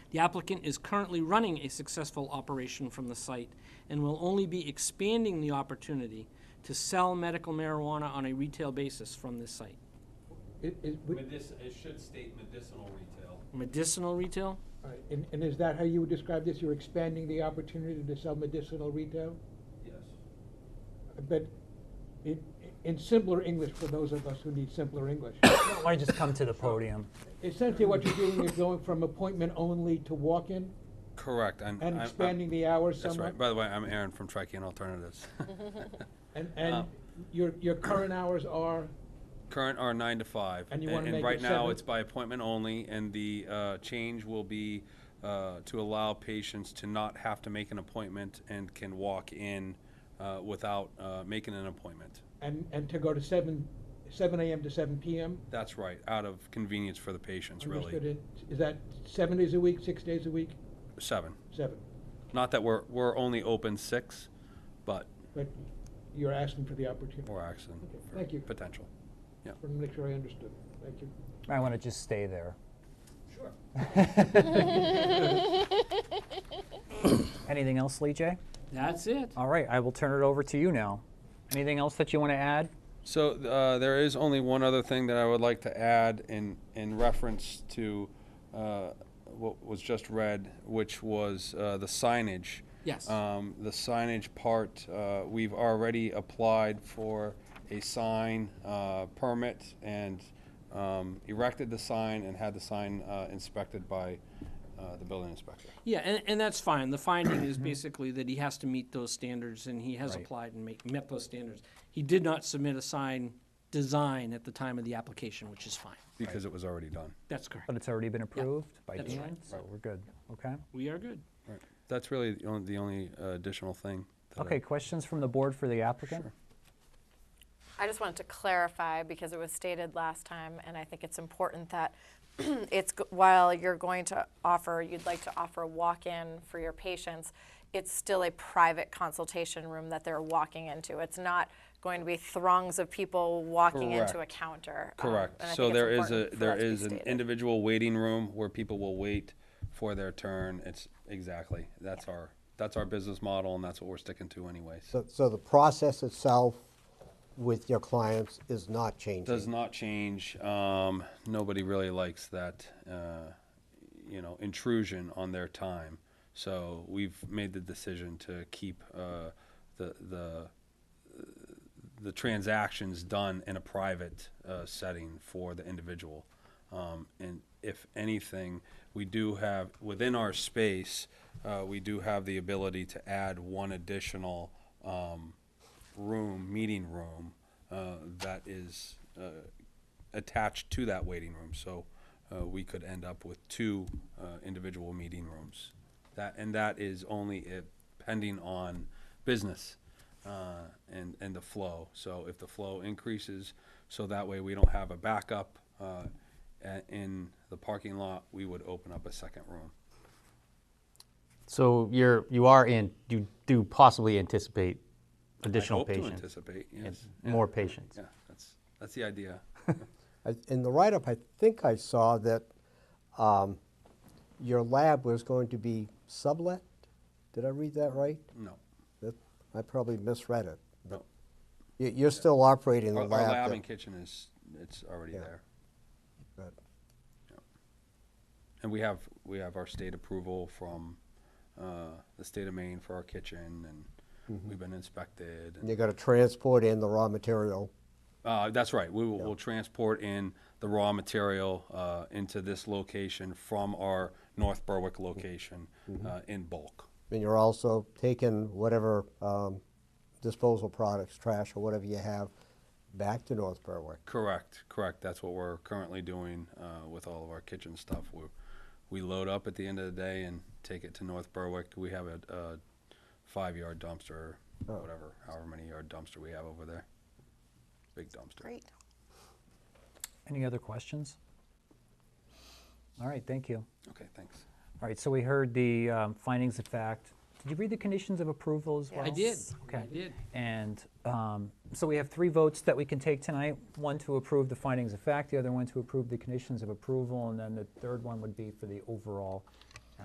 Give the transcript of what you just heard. The applicant is currently running a successful operation from the site and will only be expanding the opportunity to sell medical marijuana on a retail basis from this site. It, it, would- Medic, it should state medicinal retail. Medicinal retail? all right, and, and is that how you would describe this? You're expanding the opportunity to sell medicinal retail? Yes. But in, in simpler English, for those of us who need simpler English. Why don't you just come to the podium? Essentially, what you're doing is going from appointment only to walk-in Correct, I'm. I'm- and I'm- expanding the hours That's somewhat? right, by the way, I'm Aaron from Trican Alternatives. And, and Um, your, your current hours are, Current are nine to five. And you a- wanna make it right now, seven? it's by appointment only, and the, uh, change will be, uh, to allow patients to not have to make an appointment and can walk in, uh, without, uh, making an appointment. and, and to go to seven, seven AM to seven PM? That's right, out of convenience for the patients, Understood really. it. Is that seven days a week, six days a week? Seven. Seven. Not that we're, we're only open six, but But you're asking for the opportunity. we're asking Okay, for thank you. potential. Yeah. Want to make sure I understood. Thank you. I want to just stay there. Sure. Anything else, Lee J? That's it. All right, I will turn it over to you now. Anything else that you want to add? So uh, there is only one other thing that I would like to add in in reference to uh, what was just read, which was uh, the signage. Yes. Um, the signage part, uh, we've already applied for a sign uh, permit and um, erected the sign and had the sign uh, inspected by uh, the building inspector. Yeah, and, and that's fine. The finding is basically that he has to meet those standards, and he has Right. applied and make, met those standards. He did not submit a sign design at the time of the application, which is fine. Because it was already done. That's correct. But it's already been approved by that's Dan, right. so we're good. Okay. We are good. That's really the only, the only uh, additional thing. that I- Okay. Questions from the board for the applicant? I just wanted to clarify because it was stated last time, and I think it's important that it's, g- while you're going to offer, you'd like to offer a walk-in for your patients, it's still a private consultation room that they're walking into. It's not going to be throngs of people walking into a Correct. counter. um, Correct. and I So think it's there is a, important for there that to be is an stated. individual waiting room where people will wait for their turn. It's, exactly, that's our, that's our business model and that's what we're sticking to anyways. So, so the process itself with your clients is not Does changing? not change. Um, nobody really likes that, uh, you know, intrusion on their time. So we've made the decision to keep, uh, the, the, the transactions done in a private uh, setting for the individual. Um, and if anything, we do have within our space, uh, we do have the ability to add one additional um, room, meeting room, uh, that is uh, attached to that waiting room. So uh, we could end up with two uh, individual meeting rooms. That and that is only if, pending on business uh, and, and the flow. So if the flow increases, so that way we don't have a backup uh, a- in the parking lot, we would open up a second room. So you're, you are in, you do possibly anticipate additional I hope to patients? anticipate, and yes. More patients? Yeah, that's, that's the idea. I- In the write-up, I think I saw that um, your lab was going to be sublet? Did I read that right? No, That- I probably misread it. no. You- You're still operating Our the our lab? lab that- and kitchen is, it's already Yeah. there. that- And we have, we have our state approval from uh, the state of Maine for our kitchen and we've been inspected. and- and You're going to transport in the raw material? Uh, that's right. We will, we'll transport in the raw material uh, into this location from our North Berwick location uh, in bulk. And you're also taking whatever um, disposal products, trash, or whatever you have, back to North Berwick? Correct, correct. That's what we're currently doing uh, with all of our kitchen stuff. We we load up at the end of the day and take it to North Berwick. We have a, a five yard dumpster, whatever, however many yard dumpster we have over there. Big dumpster. Great. Any other questions? All right. Thank you. Okay, thanks. All right. So we heard the um, findings of fact. Did you read the conditions of approval as well? I did. Okay. I did. And um, so we have three votes that we can take tonight, one to approve the findings of fact, the other one to approve the conditions of approval, and then the third one would be for the overall